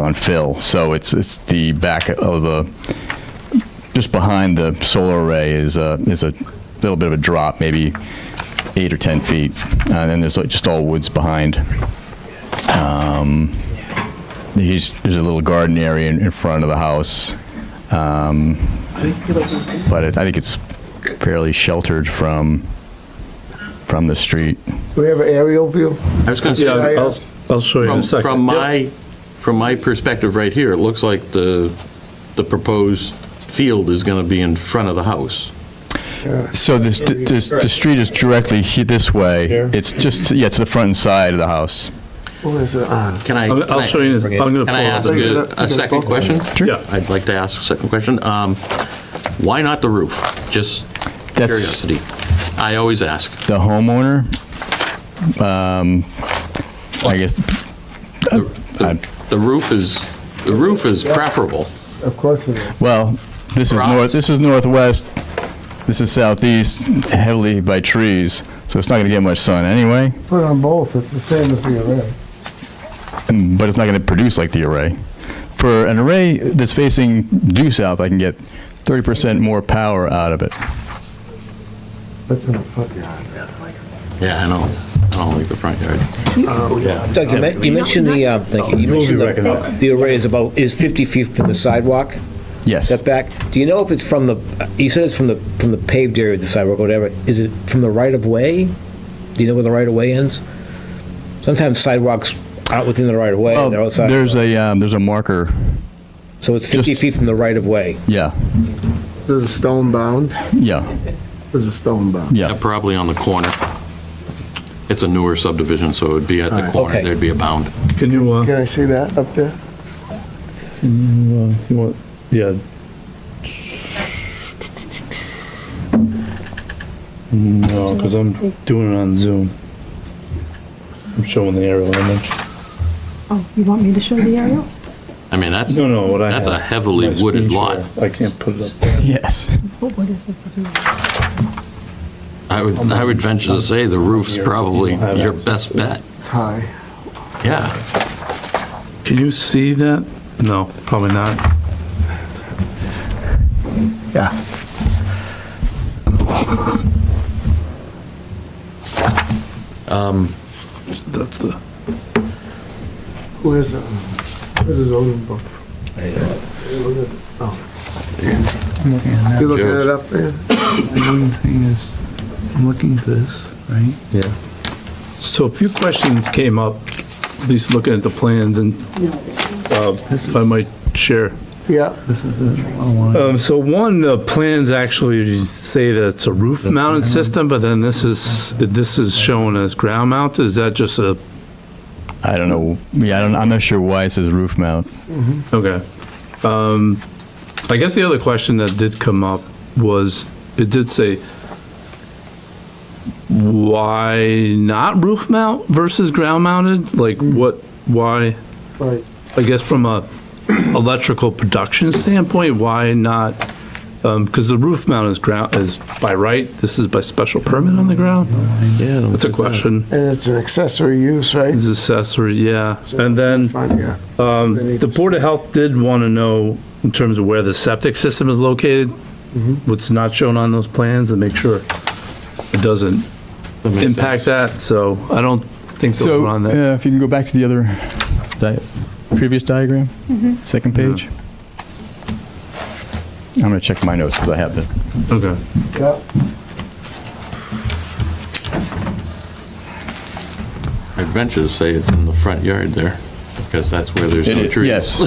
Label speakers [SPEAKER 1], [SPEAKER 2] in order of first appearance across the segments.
[SPEAKER 1] on fill, so it's, it's the back of the, just behind the solar array is a, is a little bit of a drop, maybe eight or 10 feet, and then there's like just all woods behind. Um, There's, there's a little garden area in, in front of the house, um, but it- I think it's fairly sheltered from, from the street.
[SPEAKER 2] Do we have an aerial view?
[SPEAKER 3] I was going to
[SPEAKER 4] Yeah,
[SPEAKER 3] say,
[SPEAKER 4] I'll, I'll show you
[SPEAKER 3] from,
[SPEAKER 4] in a second.
[SPEAKER 3] from
[SPEAKER 4] Yep.
[SPEAKER 3] my, from my perspective right here, it looks like the, the proposed field is going to be in front of the house.
[SPEAKER 1] So this, this, the street is directly he- this way.
[SPEAKER 4] Here?
[SPEAKER 1] It's just, yeah, to the front and side of the house.
[SPEAKER 2] Who is it on?
[SPEAKER 3] Can I?
[SPEAKER 4] I'll-
[SPEAKER 3] can
[SPEAKER 4] I'll
[SPEAKER 3] I-
[SPEAKER 4] show you in a-
[SPEAKER 3] Can
[SPEAKER 4] I'm gonna pull
[SPEAKER 3] I
[SPEAKER 4] it up.
[SPEAKER 3] ask
[SPEAKER 4] Look
[SPEAKER 2] at
[SPEAKER 3] a-
[SPEAKER 2] it- look at
[SPEAKER 3] a
[SPEAKER 2] it
[SPEAKER 3] second
[SPEAKER 2] both
[SPEAKER 3] question?
[SPEAKER 4] Yeah.
[SPEAKER 3] I'd like to ask a second question. Um, Why not the roof? Just
[SPEAKER 1] That's
[SPEAKER 3] curiosity. I always ask.
[SPEAKER 1] the homeowner. Um, I guess,
[SPEAKER 3] The- The the roof is, the roof is preferable.
[SPEAKER 2] Of course it is.
[SPEAKER 1] well, this is north,
[SPEAKER 3] Rocks.
[SPEAKER 1] this is northwest, this is southeast, heavily by trees, so it's not gonna get much sun anyway,
[SPEAKER 2] Put on both, it's the same as the array.
[SPEAKER 1] and- but it's not gonna produce like the array. For an array that's facing due south, I can get thirty percent more power out of it.
[SPEAKER 2] That's in the front yard.
[SPEAKER 3] Yeah, I know. I don't like the front yard.
[SPEAKER 5] Doug, you men- you mentioned the, um, thank you, you mentioned the- the array is about, is 50 feet from the sidewalk
[SPEAKER 1] Yes,
[SPEAKER 5] setback. Do you know if it's from the, you said it's from the, from the paved area of the sidewalk, or whatever, is it from the right-of-way? Do you know where the right-of-way ends? Sometimes sidewalks out within the right-of-way,
[SPEAKER 1] well,
[SPEAKER 5] and they're outside,
[SPEAKER 1] there's a, um, there's a marker,
[SPEAKER 5] so it's 50
[SPEAKER 1] just-
[SPEAKER 5] feet from the right-of-way.
[SPEAKER 1] yeah,
[SPEAKER 2] There's a stone bound,
[SPEAKER 1] yeah,
[SPEAKER 2] there's a stone bound.
[SPEAKER 1] yeah.
[SPEAKER 3] Yeah, Probably on the corner. It's a newer subdivision, so it'd be at the
[SPEAKER 2] Alright.
[SPEAKER 3] corner.
[SPEAKER 5] Okay.
[SPEAKER 3] There'd be a bound.
[SPEAKER 4] Can you, uh,
[SPEAKER 2] Can I see that up there?
[SPEAKER 4] you want, yeah. No, because I'm doing it on Zoom. I'm showing the aerial image.
[SPEAKER 6] Oh, you want me to show the aerial?
[SPEAKER 3] I mean, that's,
[SPEAKER 4] No, no, what I have.
[SPEAKER 3] that's a heavily
[SPEAKER 4] my
[SPEAKER 3] wooded
[SPEAKER 4] screen
[SPEAKER 3] lot.
[SPEAKER 4] share. I can't put it up. there.
[SPEAKER 1] Yes.
[SPEAKER 6] Oh, What what is it? to do?
[SPEAKER 3] I would, I would venture to say the roof's
[SPEAKER 4] Here,
[SPEAKER 3] probably
[SPEAKER 4] you don't have
[SPEAKER 3] your
[SPEAKER 4] access.
[SPEAKER 3] best bet.
[SPEAKER 2] It's high.
[SPEAKER 3] Yeah.
[SPEAKER 4] Can you see that? No, probably not.
[SPEAKER 2] Yeah.
[SPEAKER 4] That's the,
[SPEAKER 2] Who is it? This is Odin book. You look at- oh. You looking at it up there?
[SPEAKER 7] The annoying thing is, I'm looking at this, right?
[SPEAKER 4] so a few questions came up, at least looking at the plans and, uh, if I might share.
[SPEAKER 2] Yeah.
[SPEAKER 7] This is a a line.
[SPEAKER 4] Um, so one, the plans actually say that it's a roof mounted system, but then this is, this is shown as ground mounted. Is that just a,
[SPEAKER 1] I don't know. Yeah, I don't, I'm not sure why it says roof mount.
[SPEAKER 4] okay. Um, I guess the other question that did come up was, it did say, why not roof mount versus ground mounted? Like what, why?
[SPEAKER 2] Right.
[SPEAKER 4] I guess from a electrical production standpoint, why not? Because the roof mount is ground, is by right, this is by special permit on the ground? Yeah. That's a question.
[SPEAKER 2] And it's an accessory use, right?
[SPEAKER 4] Is accessory, yeah. And then
[SPEAKER 2] Front yard.
[SPEAKER 4] Mm-hmm. um, the Board of Health did want to know in terms of where the septic system is located,
[SPEAKER 1] Mm-hmm.
[SPEAKER 4] what's not shown on those plans and make sure it doesn't impact that. So I don't think they'll
[SPEAKER 1] So,
[SPEAKER 4] run that.
[SPEAKER 1] uh, if you can go back to the other, di previous diagram, second page. I'm gonna check my notes because I have the
[SPEAKER 4] Okay.
[SPEAKER 2] Yeah.
[SPEAKER 3] I'd venture to say it's in the front yard there, because that's where there's no
[SPEAKER 1] It-
[SPEAKER 3] trees.
[SPEAKER 1] Yes,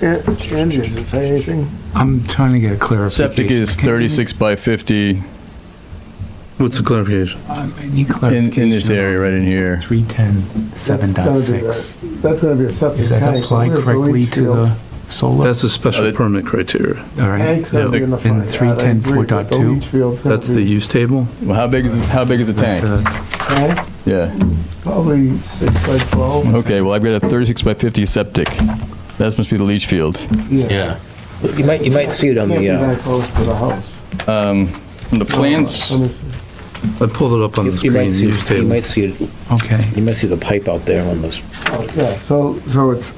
[SPEAKER 2] Yeah, And does it say anything?
[SPEAKER 7] I'm trying to get a clarification.
[SPEAKER 1] septic is
[SPEAKER 7] Can you-
[SPEAKER 1] 36 by 50
[SPEAKER 4] What's the clarification?
[SPEAKER 7] I need
[SPEAKER 1] in, in
[SPEAKER 7] clarification.
[SPEAKER 1] this area right in here.
[SPEAKER 7] 310,
[SPEAKER 2] That's gotta be
[SPEAKER 7] 7.6.
[SPEAKER 2] that- That's gonna be a septic
[SPEAKER 7] Is
[SPEAKER 2] tank.
[SPEAKER 7] that applied
[SPEAKER 2] Where's the
[SPEAKER 7] correctly
[SPEAKER 2] leach
[SPEAKER 7] to
[SPEAKER 2] field?
[SPEAKER 7] the solar?
[SPEAKER 4] That's a
[SPEAKER 1] Uh,
[SPEAKER 4] special
[SPEAKER 1] the-
[SPEAKER 4] permit criteria.
[SPEAKER 7] All right.
[SPEAKER 2] Tank's gonna be in the
[SPEAKER 7] In
[SPEAKER 2] front yard. I
[SPEAKER 7] 310,
[SPEAKER 2] agree, but the
[SPEAKER 7] 4.2.
[SPEAKER 2] leach field's gonna
[SPEAKER 4] That's the
[SPEAKER 2] be-
[SPEAKER 4] use table?
[SPEAKER 1] Well, how big is, it- how big is the tank?
[SPEAKER 7] Uh,
[SPEAKER 2] Tank?
[SPEAKER 1] Yeah,
[SPEAKER 2] Probably six by twelve.
[SPEAKER 1] okay, well, I've got a 36 by 50 septic. That must be the leach field.
[SPEAKER 3] Yeah.
[SPEAKER 5] You might, you might see it on
[SPEAKER 2] Can't be
[SPEAKER 5] the, uh,
[SPEAKER 2] that close to the house.
[SPEAKER 1] Um, From the plans,
[SPEAKER 2] Let me see.
[SPEAKER 4] I pulled it up on
[SPEAKER 5] You
[SPEAKER 4] the
[SPEAKER 5] you might
[SPEAKER 4] screen,
[SPEAKER 5] see,
[SPEAKER 4] use
[SPEAKER 5] you
[SPEAKER 4] table.
[SPEAKER 5] might see, it-
[SPEAKER 7] Okay.
[SPEAKER 5] you might see the pipe out there on this
[SPEAKER 2] Yeah, so, so it's,